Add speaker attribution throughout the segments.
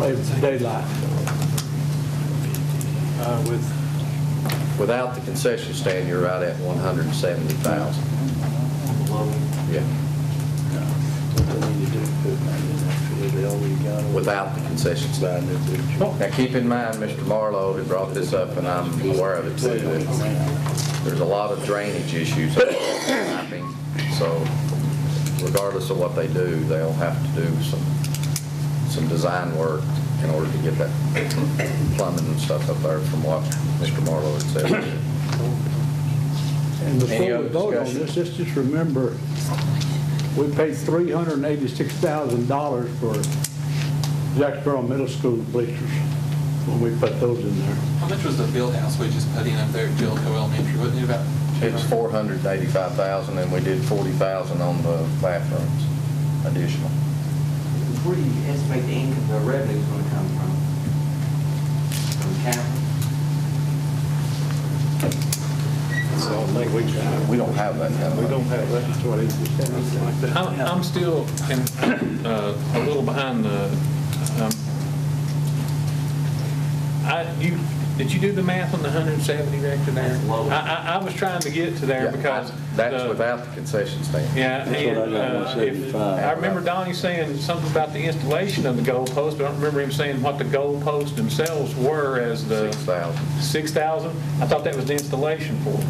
Speaker 1: It's daylight. Uh, With,
Speaker 2: Without the concession stand, you're right at 170,000. Yeah, without the concession stand. Now, keep in mind, Mr. Marlowe had brought this up, and I'm aware of it too, that there's a lot of drainage issues that are happening, so regardless of what they do, they'll have to do some, some design work in order to get that plumbing and stuff up there from what Mr. Marlowe had said.
Speaker 1: and
Speaker 2: Any
Speaker 1: before
Speaker 2: other
Speaker 1: we vote on
Speaker 2: discussion?
Speaker 1: this, let's just remember, we paid $386,000 for Jacksboro Middle School bleachers when we put those in there.
Speaker 3: How much was the field house we just put in up there at Jericho Elementary? Wasn't it about?
Speaker 2: It's four hundred and eighty-five thousand, and we did forty thousand on the bathrooms additional.
Speaker 4: Where do you estimate the income, the revenue's gonna come from? From capital?
Speaker 2: We don't have that kind of
Speaker 1: We
Speaker 2: money.
Speaker 1: don't have that, that's what he was saying, like that.
Speaker 5: I'm I'm still in, uh, a little behind the, um, I, you, did you do the math on the 170 Director there?
Speaker 4: That's low.
Speaker 5: I, I, I was trying to get to there
Speaker 2: Yeah,
Speaker 5: because.
Speaker 2: That's
Speaker 5: the-
Speaker 2: without the concession stand.
Speaker 5: Yeah, and uh, if- I remember Donnie saying something about the installation of the goalpost, but I don't remember him saying what the goalposts themselves were as the
Speaker 2: Six thousand.
Speaker 5: 6,000. I thought that was the installation for them.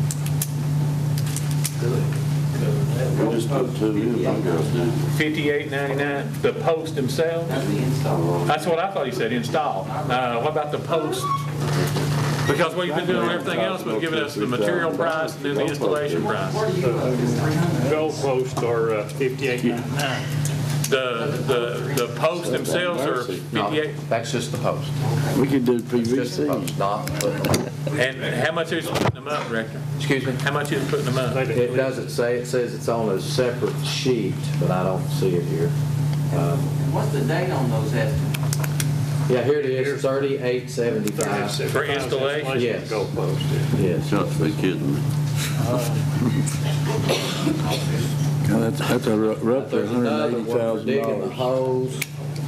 Speaker 6: We just put two in, I guess, didn't we?
Speaker 5: 58.99, the posts themselves?
Speaker 4: That's the install.
Speaker 5: That's what I thought he said, install. Uh, What about the post? Because what you've been doing on everything else was giving us the material price and then the installation price.
Speaker 4: Where do you look, is three hundred?
Speaker 7: Goalposts are uh, fifty-eight ninety-nine.
Speaker 5: The, the, the posts themselves are 58,
Speaker 2: That's just the post.
Speaker 6: We could do
Speaker 2: Just the
Speaker 6: PVC.
Speaker 2: post, not, the-
Speaker 5: and how much is putting them up, Director?
Speaker 2: excuse me?
Speaker 5: How much is putting them up?
Speaker 8: It doesn't say, it says it's on a separate sheet, but I don't see it here.
Speaker 4: And What's the date on those estimates?
Speaker 8: Yeah, here it is, thirty-eight seventy-five,
Speaker 5: For installation?
Speaker 8: Yes.
Speaker 7: Goalpost, yeah.
Speaker 8: yes.
Speaker 6: Got to be kidding me. God, That's that's a rou- roughly
Speaker 8: There's another one for digging the
Speaker 6: $180,000.
Speaker 8: holes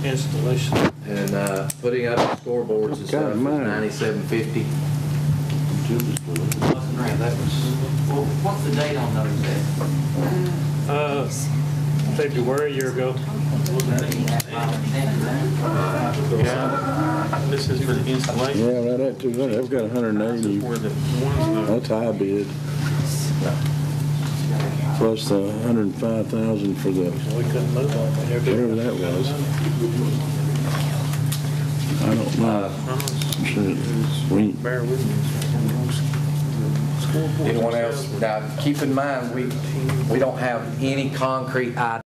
Speaker 7: Installation.
Speaker 8: and, uh, putting up scoreboards and
Speaker 6: Got
Speaker 8: stuff,
Speaker 6: it, man.
Speaker 8: ninety-seven fifty.
Speaker 4: Wasn't there, that was, well, what's the date on those estimates?
Speaker 7: Uh, February, a year ago.
Speaker 5: This is for the installation.
Speaker 6: Yeah, right at 200, I've got 180,
Speaker 5: Where the ones that-
Speaker 6: that's high bid. Plus the 105,000 for the,
Speaker 7: We couldn't move on when they're
Speaker 6: whatever that was. I don't know. Shit, We,
Speaker 5: Bear with me.
Speaker 2: Anyone else? Now, keep in mind, we, we don't have any concrete idea